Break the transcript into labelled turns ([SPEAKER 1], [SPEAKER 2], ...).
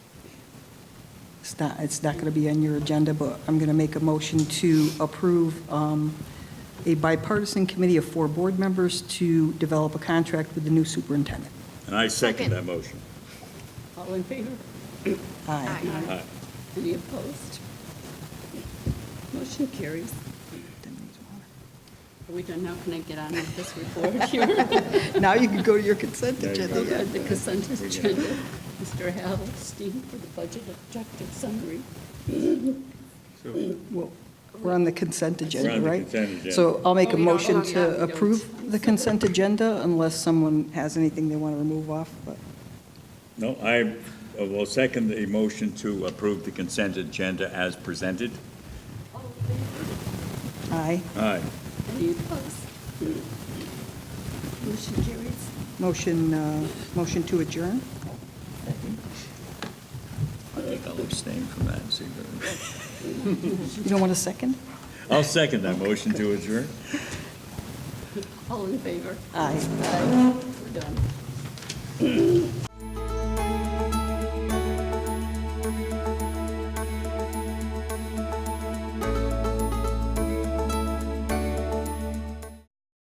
[SPEAKER 1] It's not, it's not going to be on your agenda, but I'm going to make a motion to approve um, a bipartisan committee of four board members to develop a contract with the new superintendent.
[SPEAKER 2] And I second
[SPEAKER 3] Second.
[SPEAKER 2] that motion.
[SPEAKER 4] All in favor?
[SPEAKER 1] Aye.
[SPEAKER 2] Aye.
[SPEAKER 4] Any opposed? Motion carries. Are we done now? Can I get on with this report here?
[SPEAKER 1] Now you can go to your consent
[SPEAKER 2] There you
[SPEAKER 1] agenda.
[SPEAKER 2] go.
[SPEAKER 1] yeah.
[SPEAKER 4] The consent
[SPEAKER 2] We get it.
[SPEAKER 4] agenda. Mr. Halstein for the budget objective summary.
[SPEAKER 1] Well, We're on the consent
[SPEAKER 2] We're
[SPEAKER 1] agenda,
[SPEAKER 2] on the
[SPEAKER 1] right?
[SPEAKER 2] consent agenda.
[SPEAKER 1] So I'll make
[SPEAKER 4] Oh,
[SPEAKER 1] a
[SPEAKER 4] we don't-
[SPEAKER 1] motion
[SPEAKER 4] oh, yeah,
[SPEAKER 1] to
[SPEAKER 4] we don't.
[SPEAKER 1] approve the consent agenda unless someone has anything they want to remove off, but
[SPEAKER 2] No, I uh, will second the motion to approve the consent agenda as presented.
[SPEAKER 1] aye.
[SPEAKER 2] Aye.
[SPEAKER 4] Any opposed? Motion carries.
[SPEAKER 1] Motion, uh, motion to adjourn?
[SPEAKER 2] I think I'll abstain from that. and see if-
[SPEAKER 1] You don't want a second?
[SPEAKER 2] I'll second that motion to adjourn.
[SPEAKER 4] All in favor?
[SPEAKER 1] Aye.
[SPEAKER 4] Aye. We're done.